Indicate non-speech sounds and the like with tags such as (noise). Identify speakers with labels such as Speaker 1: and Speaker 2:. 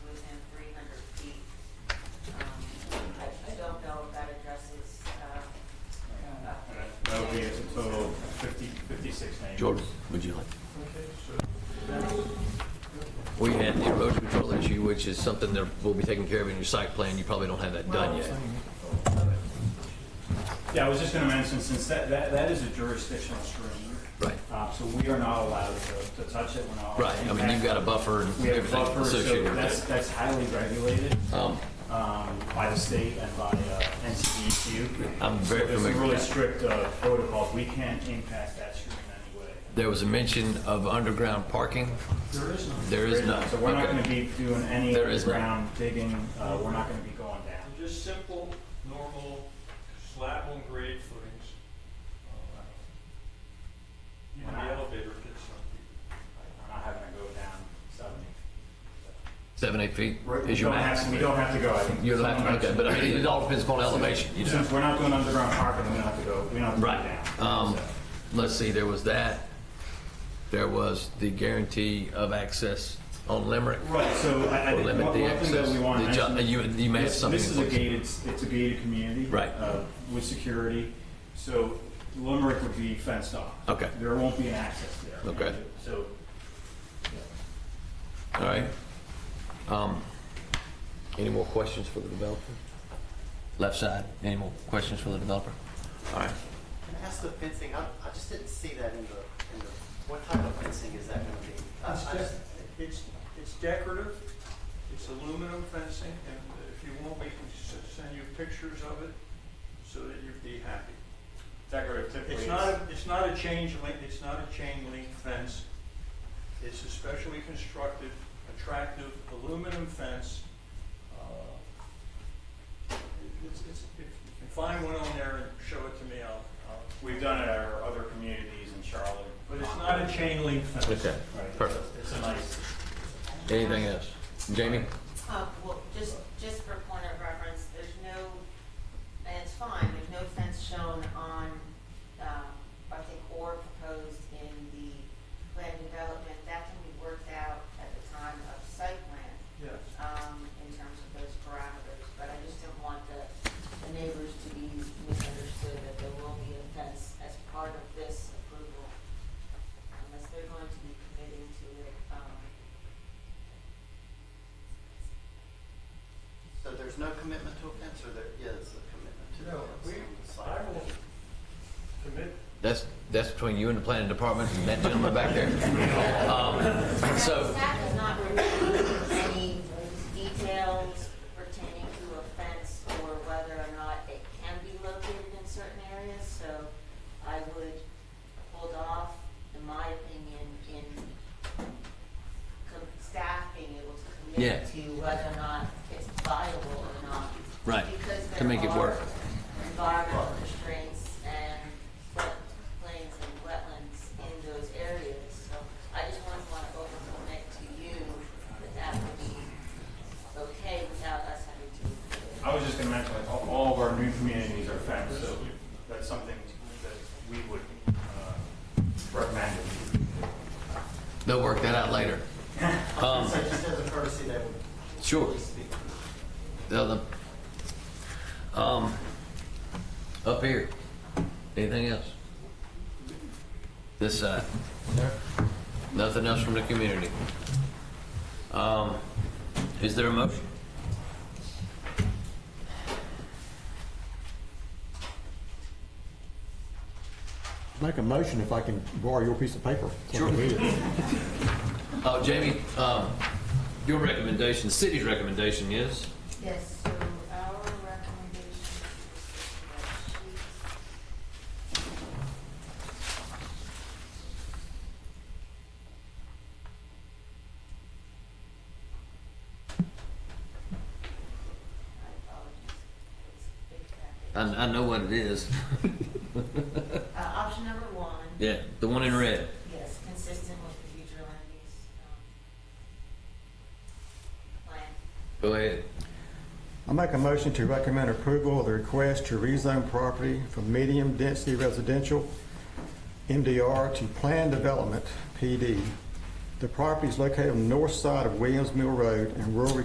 Speaker 1: Um, uh,
Speaker 2: Jordan, would you like? We had the erosion control issue, which is something that will be taken care of in your site plan. You probably don't have that done yet.
Speaker 3: Yeah, I was just gonna mention, since that, that, that is a jurisdictional stream.
Speaker 2: Right,
Speaker 3: Uh, so we are not allowed to, to touch it, we're not.
Speaker 2: right. I mean, you've got a buffer and
Speaker 3: We have a
Speaker 2: everything
Speaker 3: buffer, so
Speaker 2: associated
Speaker 3: that's,
Speaker 2: with
Speaker 3: that's highly regulated,
Speaker 2: that. Um,
Speaker 3: um, by the state and by, uh, NCDQ.
Speaker 2: I'm
Speaker 3: So
Speaker 2: very
Speaker 3: There's
Speaker 2: familiar
Speaker 3: some
Speaker 2: with
Speaker 3: really
Speaker 2: that.
Speaker 3: strict, uh, protocols, we can't impact that stream in any way.
Speaker 2: There was a mention of underground parking.
Speaker 3: There is none.
Speaker 2: There is none.
Speaker 3: So we're not
Speaker 2: Okay.
Speaker 3: gonna be doing any
Speaker 2: There is none.
Speaker 3: ground digging, uh, we're not gonna be going down.
Speaker 4: Just simple, normal slab on grade footings. Uh, Even the elevator gets some people.
Speaker 3: I'm not having to go down seventy.
Speaker 2: Seven, eight feet
Speaker 3: We
Speaker 2: is your
Speaker 3: don't
Speaker 2: max.
Speaker 3: have to- We don't have to go, I think.
Speaker 2: You'll have to, okay, but I mean, it all depends upon elevation, you know?
Speaker 3: Since we're not doing underground parking, we don't have to go, we don't have to go
Speaker 2: Right. Um,
Speaker 3: down. So,
Speaker 2: Let's see, there was that. There was the guarantee of access on Limerick.
Speaker 3: Right, so I, I
Speaker 2: Or
Speaker 3: think
Speaker 2: limit
Speaker 3: one
Speaker 2: the
Speaker 3: one thing that
Speaker 2: access.
Speaker 3: we want to
Speaker 2: The ju-
Speaker 3: mention.
Speaker 2: you- you may have
Speaker 3: this-
Speaker 2: something
Speaker 3: This
Speaker 2: in
Speaker 3: is a
Speaker 2: place.
Speaker 3: gated, it's a gated community.
Speaker 2: Right.
Speaker 3: uh, With security, so Limerick would be fenced off.
Speaker 2: Okay.
Speaker 3: There won't be an access there.
Speaker 2: Okay.
Speaker 3: So,
Speaker 2: All right. Um, Any more questions for the developer? Left side, any more questions for the developer? All right.
Speaker 5: Can I ask the fencing, I, I just didn't see that in the, in the, what type of fencing is that gonna be? I-
Speaker 4: It's
Speaker 5: I just-
Speaker 4: de- It's, it's decorative, it's aluminum fencing, and if you want, we can s- send you pictures of it so that you'd be happy.
Speaker 3: decorative typically.
Speaker 4: It's
Speaker 3: is-
Speaker 4: not, a- it's not a chain link, it's not a chain link fence. It's a specially constructed, attractive aluminum fence. Uh, it- It's, it's, if you can find one on there and show it to me, I'll, I'll,
Speaker 3: We've done it at our other communities in Charlotte.
Speaker 4: but it's not a chain link fence.
Speaker 2: Okay,
Speaker 3: Right, it's a-
Speaker 2: perfect.
Speaker 3: It's a nice.
Speaker 2: Anything else? Jamie?
Speaker 1: Uh, well, just, just for point of reference, there's no, and it's fine, there's no fence shown on, um, I think, or proposed in the plan development. That can be worked out at the time of site plan,
Speaker 4: Yes.
Speaker 1: um, in terms of those parameters. But I just don't want the, the neighbors to be misunderstood that there will be a fence as part of this approval. Unless they're going to be committing to it, um,
Speaker 5: So there's no commitment to a fence, or there is a commitment to
Speaker 4: No,
Speaker 5: a
Speaker 4: we,
Speaker 5: fence on the
Speaker 4: I
Speaker 5: site?
Speaker 4: will commit
Speaker 2: That's, that's between you and the planning department and that gentleman back there. Um, (laughs) So,
Speaker 1: Staff has not reviewed any details pertaining to a fence or whether or not it can be located in certain areas, so I would hold off, in my opinion, in co- staff being able to
Speaker 2: Yeah.
Speaker 1: commit to whether or not it's viable or not.
Speaker 2: Right,
Speaker 1: because
Speaker 2: to
Speaker 1: there
Speaker 2: make it
Speaker 1: are
Speaker 2: work.
Speaker 1: Environmental constraints and wetlands and wetlands in those areas, so I just want to want to open it to you that that would be okay without us having to.
Speaker 3: I was just gonna mention, like, all, all of our new communities are fenced, so that's something that we would, uh, recommend.
Speaker 2: they'll work that out later. Um,
Speaker 5: So just as a courtesy, that would.
Speaker 2: Sure.
Speaker 5: Speak.
Speaker 2: The other, um, up here. Anything else? This side. Nothing else from the community. Um, is there a motion?
Speaker 6: Make a motion if I can borrow your piece of paper.
Speaker 2: Sure. Oh, Jamie, um, your recommendation, the city's recommendation is?
Speaker 1: Yes, so our recommendation is
Speaker 2: I, I know what it is.
Speaker 1: Uh, Option number one.
Speaker 2: Yeah, the one in red.
Speaker 1: Yes, consistent with the future land use um, plan.
Speaker 2: Go ahead.
Speaker 6: I make a motion to recommend approval of the request to rezone property from medium-density residential, MDR, to planned development, PD. The property is located on the north side of Williams Mill Road in rural